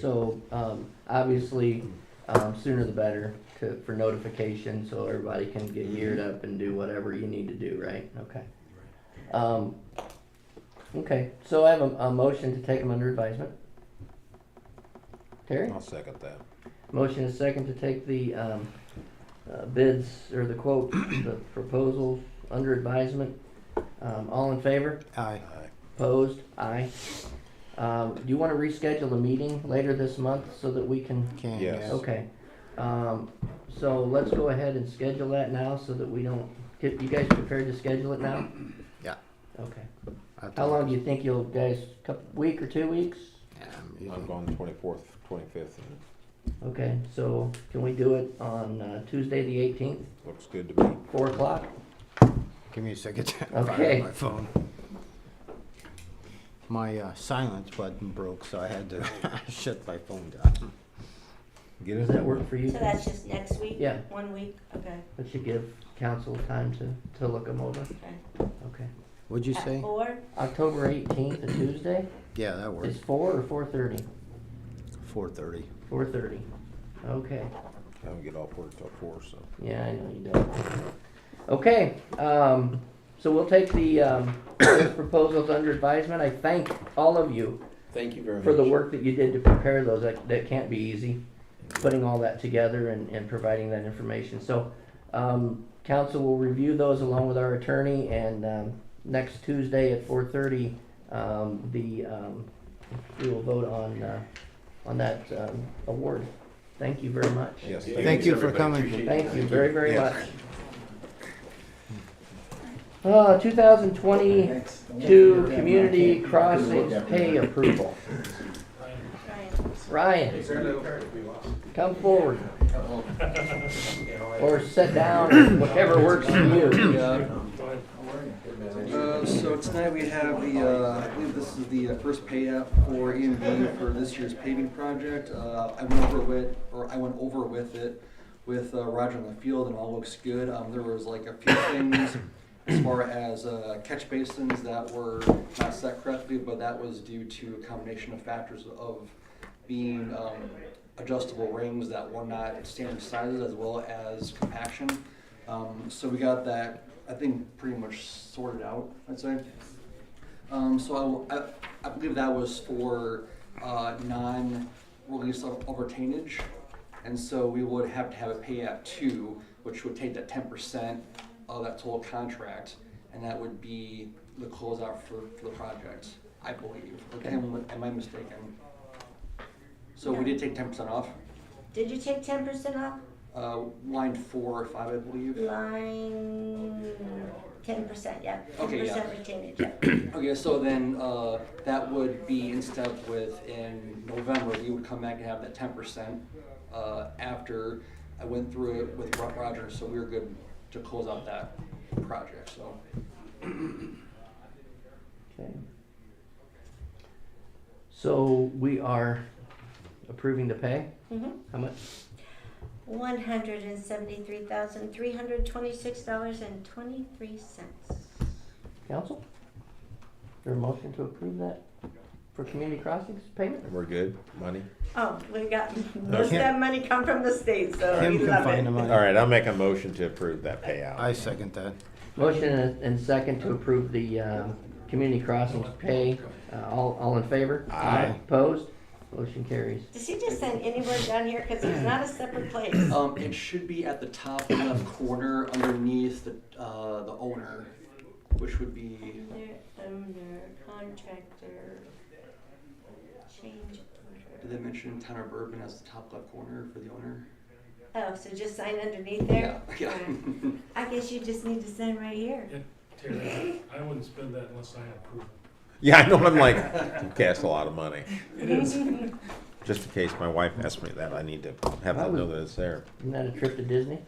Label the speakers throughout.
Speaker 1: So, um, obviously, um, sooner the better to, for notification, so everybody can get geared up and do whatever you need to do, right? Okay. Um, okay, so I have a, a motion to take them under advisement. Terry?
Speaker 2: I'll second that.
Speaker 1: Motion is second to take the um, uh, bids, or the quote, the proposal under advisement. Um, All in favor?
Speaker 2: Aye.
Speaker 1: Opposed? Aye. Um, Do you want to reschedule a meeting later this month so that we can?
Speaker 3: Can,
Speaker 2: Yes.
Speaker 3: yes.
Speaker 1: Okay. Um, So let's go ahead and schedule that now so that we don't, get you guys prepared to schedule it now?
Speaker 3: Yeah.
Speaker 1: Okay.
Speaker 3: I
Speaker 1: How
Speaker 3: think-
Speaker 1: long do you think you'll, guys, couple, week or two weeks?
Speaker 3: Yeah, I'm
Speaker 2: I'm
Speaker 3: using-
Speaker 2: going twenty-fourth, twenty-fifth, and
Speaker 1: Okay, so can we do it on uh, Tuesday, the eighteenth,
Speaker 2: it looks good to me.
Speaker 1: four o'clock?
Speaker 3: Give me a second. to
Speaker 1: Okay.
Speaker 3: fire up My phone. My uh, silence button broke, so I had to shut my phone down.
Speaker 2: Get
Speaker 1: Does
Speaker 2: in
Speaker 1: that
Speaker 2: there.
Speaker 1: work for you?
Speaker 4: So that's just next week?
Speaker 1: Yeah.
Speaker 4: One week, okay,
Speaker 1: That should give council time to, to look them over,
Speaker 4: okay.
Speaker 1: okay.
Speaker 3: What'd you
Speaker 4: At
Speaker 3: say?
Speaker 4: four,
Speaker 1: October eighteenth, a Tuesday,
Speaker 3: Yeah, that
Speaker 1: is
Speaker 3: works.
Speaker 1: four or four thirty?
Speaker 3: Four thirty.
Speaker 1: Four thirty, okay,
Speaker 2: I don't get off work till four, so.
Speaker 1: yeah, I know you don't. Okay, um, so we'll take the, um, those proposals under advisement, I thank all of you
Speaker 5: Thank you very much.
Speaker 1: for the work that you did to prepare those, that, that can't be easy, putting all that together and, and providing that information. So, um, council will review those along with our attorney, and, um, next Tuesday at four thirty, um, the, um, we will vote on, uh, on that, um, award. Thank you very much.
Speaker 2: Yes.
Speaker 5: Yeah,
Speaker 3: Thank
Speaker 5: thanks,
Speaker 3: you for
Speaker 5: everybody.
Speaker 3: coming.
Speaker 5: Appreciate it.
Speaker 1: Thank you very, very
Speaker 2: Yes.
Speaker 1: much. Uh, two thousand twenty-two Community Crossings Pay Approval.
Speaker 4: Ryan.
Speaker 1: Ryan, come forward. Or sit down, whatever works for you.
Speaker 6: Uh, So tonight we have the, uh, I believe this is the uh, first pay app for EMV for this year's paving project. Uh, I went over with, or I went over with it with uh, Roger on the field and all looks good. Um, There was like a few things as far as uh, catch basins that were not set correctly, but that was due to a combination of factors of being um, adjustable rings that were not standard sizes as well as compaction. Um, so we got that, I think, pretty much sorted out, I'd say. Um, so I, I, I believe that was for uh, non-release of, of retainage. And so we would have to have a pay app two, which would take that 10% of that total contract, and that would be the closeout for, for the project, I believe. Am, am I mistaken? So we did take 10% off,
Speaker 4: Did you take ten percent off?
Speaker 6: uh, line four or five, I believe.
Speaker 4: Line, ten percent, yeah.
Speaker 6: Okay, yeah.
Speaker 4: Ten percent retainage.
Speaker 6: Okay, so then, uh, that would be in step with in November, we would come back and have that ten percent, uh, after I went through it with Ro- Roger, so we were good to close out that project, so.
Speaker 1: Okay. So we are approving the pay?
Speaker 4: Mm-hmm.
Speaker 1: How much?
Speaker 4: One hundred and seventy-three thousand, three hundred twenty-six dollars and twenty-three cents.
Speaker 1: Council? Is there a motion to approve that for Community Crossings payment?
Speaker 2: And we're good, money?
Speaker 4: Oh, we got, most of that money come from the state, so
Speaker 3: Kim
Speaker 4: we
Speaker 3: can
Speaker 4: love
Speaker 3: find the
Speaker 4: it.
Speaker 2: All
Speaker 3: money.
Speaker 2: right, I'll make a motion to approve that payout.
Speaker 3: I second that.
Speaker 1: Motion and and second to approve the, um, Community Crossings pay. Uh, all, all in favor?
Speaker 2: Aye.
Speaker 1: Opposed? Motion carries.
Speaker 4: Does he just send anyone down here, cause it's not a separate place?
Speaker 6: Um, it should be at the top left corner underneath the, uh, the owner, which would be,
Speaker 4: Under, under contractor, change
Speaker 6: did
Speaker 4: order.
Speaker 6: they mention town of Bourbon as the top left corner for the owner?
Speaker 4: Oh, so just sign underneath
Speaker 6: Yeah,
Speaker 4: there?
Speaker 6: yeah.
Speaker 4: I guess you just need to sign right here.
Speaker 7: Terry, I wouldn't spend that unless I approve.
Speaker 2: Yeah, I know, I'm like, you cast a lot of money.
Speaker 7: It is.
Speaker 2: Just in case my wife asks me that, I need to have that know that it's there.
Speaker 1: Isn't that a trip to Disney?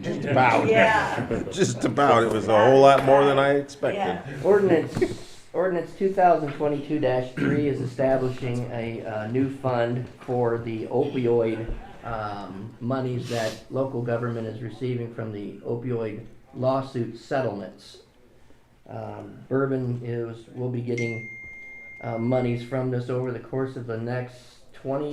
Speaker 2: Just about.
Speaker 4: Yeah.
Speaker 2: Just about, it was a whole lot more than I expected.
Speaker 4: Yeah.
Speaker 1: Ordinance, ordinance two thousand twenty-two three is establishing a, uh, new fund for the opioid, um, monies that local government is receiving from the opioid lawsuit settlements. Um, Bourbon is, will be getting, uh, monies from this over the course of the next twenty